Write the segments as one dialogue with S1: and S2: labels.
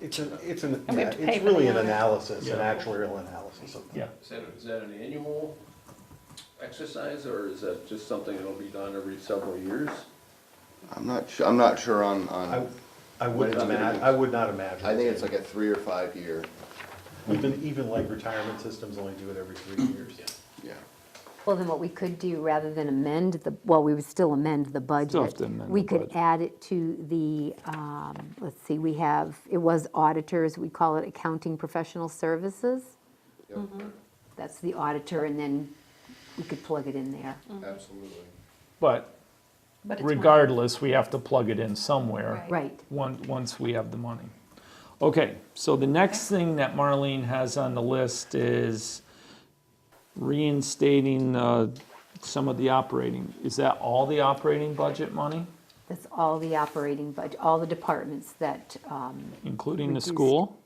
S1: It's an, it's an,
S2: And we
S1: yeah,
S2: have to pay
S1: it's
S2: for the
S1: really an
S2: honor.
S1: analysis, an
S3: Yeah.
S1: actuarial analysis of.
S3: Yeah.
S4: Is that, is that an annual exercise, or is that just something that'll be done every several years?
S5: I'm not, su- I'm not sure on,
S1: I,
S5: on,
S1: I wouldn't
S5: What is it?
S1: imagine, I would not imagine.
S5: I think it's like a three or five year,
S1: Even, even like retirement systems only do it every three
S6: Mm-hmm.
S1: years.
S5: yeah.
S7: Well, then what we could do, rather than amend the, well, we would still amend the budget.
S3: Still have to amend
S7: We
S3: the
S7: could
S3: budget.
S7: add it to the, um, let's see, we have, it was auditors, we call it accounting professional services. Mm-hmm.
S5: Yep,
S7: That's the auditor, and then we could plug it in there.
S8: Mm-hmm.
S5: Absolutely.
S3: But
S2: But it's one-
S3: regardless, we have to plug it in somewhere.
S2: Right.
S7: Right.
S3: Once, once we have the money. Okay, so the next thing that Marlene has on the list is reinstating, uh, some of the operating. Is that all the operating budget money,
S7: That's all the operating budget, all the departments that, um,
S3: including the
S7: Reduced.
S3: school?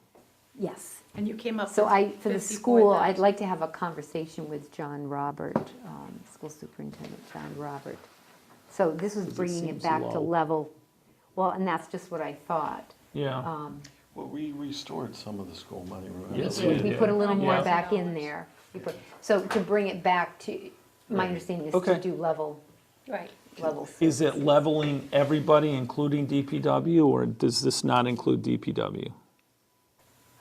S7: yes.
S2: And you came up with
S7: So I, for the school, I'd
S2: 54,000.
S7: like to have a conversation with John Robert, um, school superintendent John Robert. So this was
S3: it
S7: bringing it
S3: seems
S7: back to
S3: low.
S7: level, well, and that's just what I thought.
S3: Yeah,
S7: Um,
S6: Well, we restored some of the school money, remember?
S3: Yes,
S7: We we put a little more
S3: Yeah.
S7: back in there. We put- So to bring it back to, my understanding is to
S3: Okay.
S7: do level,
S2: Right.
S7: levels.
S3: is it leveling everybody, including DPW, or does this not include DPW?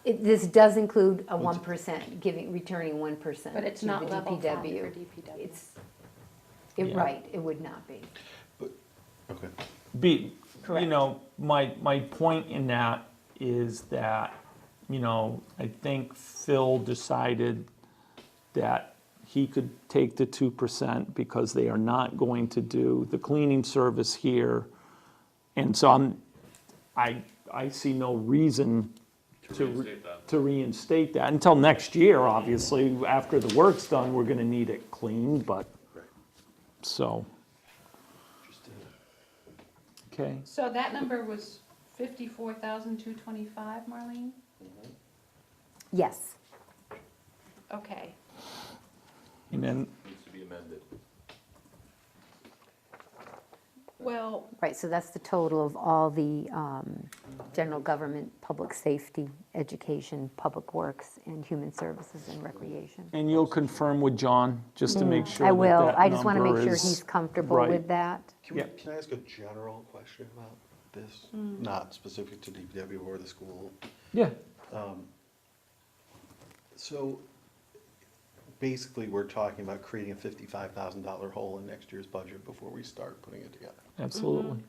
S7: It- This does include a 1%, giving, returning 1%.
S2: But it's
S7: to
S2: not
S7: the
S2: level five for
S7: DPW.
S2: DPW.
S7: It's, it-
S3: Yeah.
S7: right, it would not be.
S6: Okay.
S3: be, you
S7: Correct.
S3: know, my, my point in that is that, you know, I think Phil decided that he could take the two percent because they are not going to do the cleaning service here. And so I'm, I, I see no reason to. reinstate that. To reinstate that, until next year, obviously, after the work's done, we're gonna need it cleaned, but, so. Okay.
S8: So that number was fifty-four thousand two twenty-five, Marlene?
S7: Yes.
S8: Okay,
S3: And then,
S4: Needs to be amended.
S8: well,
S7: Right, so that's the total of all the um, general government, public safety, education, public works, and human services and recreation.
S3: and you'll confirm with John, just to make sure
S7: I
S3: that
S7: will,
S3: that
S7: I just want to make
S3: number
S7: sure
S3: is-
S7: he's comfortable
S3: right.
S7: with that.
S6: Can we,
S3: Yeah.
S6: can I ask a general question about this?
S2: Mm.
S6: Not specific to DPW or the school.
S3: Yeah,
S6: So basically, we're talking about creating a fifty-five thousand dollar hole in next year's budget before we start putting it together.
S3: absolutely.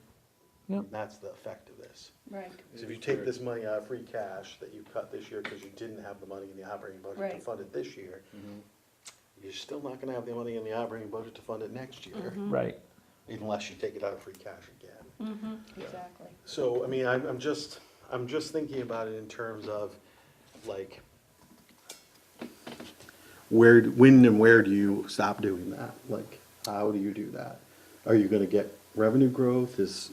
S7: Mm-hmm.
S6: That's the effect of this.
S8: right,
S6: So if you take this money out of free cash that you cut this year because you didn't have the money in the operating budget to
S8: Right.
S6: fund it this year, you're still not gonna have the money in the operating budget to fund it next year,
S3: Right.
S6: unless you take it out of free cash again.
S8: exactly.
S6: So, I mean, I'm, I'm just, I'm just thinking about it in terms of, like, where, when and where do you stop doing that? Like, how do you do that? Are you gonna get revenue growth? Is,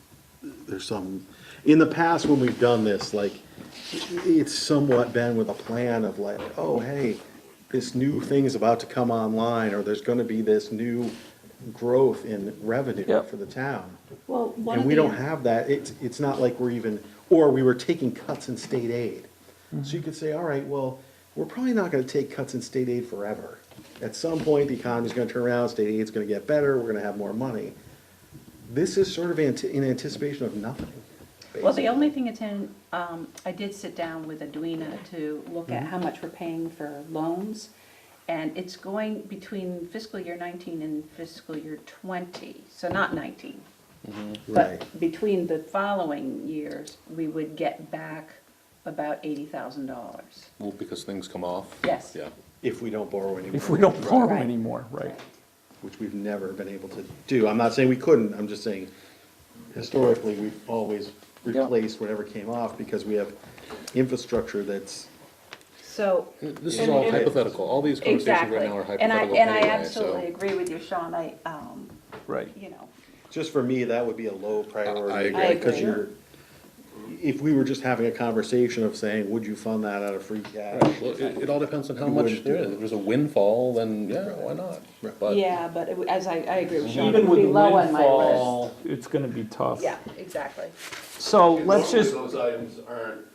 S6: there's some, in the past, when we've done this, like, it's somewhat been with a plan of like, oh, hey, this new thing is about to come online, or there's gonna be this new growth in revenue
S3: Yep.
S6: for the town.
S2: Well, one
S6: And
S2: of
S6: we don't
S2: the,
S6: have that, it's, it's not like we're even, or we were taking cuts in state aid. So you could say, all right, well, we're probably not gonna take cuts in state aid forever. At some point, the economy's gonna turn around, state aid's gonna get better, we're gonna have more money. This is sort of anti- in anticipation of nothing.
S8: Well, the only thing it's in, um, I did sit down with Edwina to look
S6: Mm-hmm.
S8: at how much we're paying for loans. And it's going between fiscal year nineteen and fiscal year twenty, so not nineteen.
S6: Right,
S8: But between the following years, we would get back about eighty thousand dollars.
S5: Well, because things come off.
S8: Yes.
S5: Yeah,
S6: if we don't borrow any
S3: If
S6: more,
S3: we don't borrow
S8: Right.
S3: anymore, right.
S6: which we've never been able to do. I'm not saying we couldn't, I'm just saying historically, we've always replaced whatever came off because we have infrastructure that's
S8: So
S5: this is
S8: And-
S5: all
S8: and-
S5: hypothetical, all these conversations
S8: Mm-hmm. Exactly.
S5: right now are
S8: And I,
S5: hypothetical
S8: and I
S5: anyway,
S8: absolutely
S5: so.
S8: agree with you, Sean, I, um,
S3: Right.
S8: you know,
S6: Just for me, that would be a low priority.
S5: I agree.
S8: I
S6: Because
S8: agree.
S6: you're, if we were just having a conversation of saying, would you fund that out of free cash?
S5: Well, it, it all depends on how
S6: We
S5: much
S6: wouldn't
S5: there
S6: do
S5: is,
S6: it.
S5: if there's a windfall, then yeah, why not?
S6: Right.
S5: But-
S8: yeah, but it- as I, I agree with Sean. it
S3: Even
S8: would
S3: with
S8: be
S3: the
S8: low on my list.
S3: windfall, it's gonna be tough.
S8: Yeah, exactly.
S3: So let's
S4: Mostly
S3: just,
S4: Those items aren't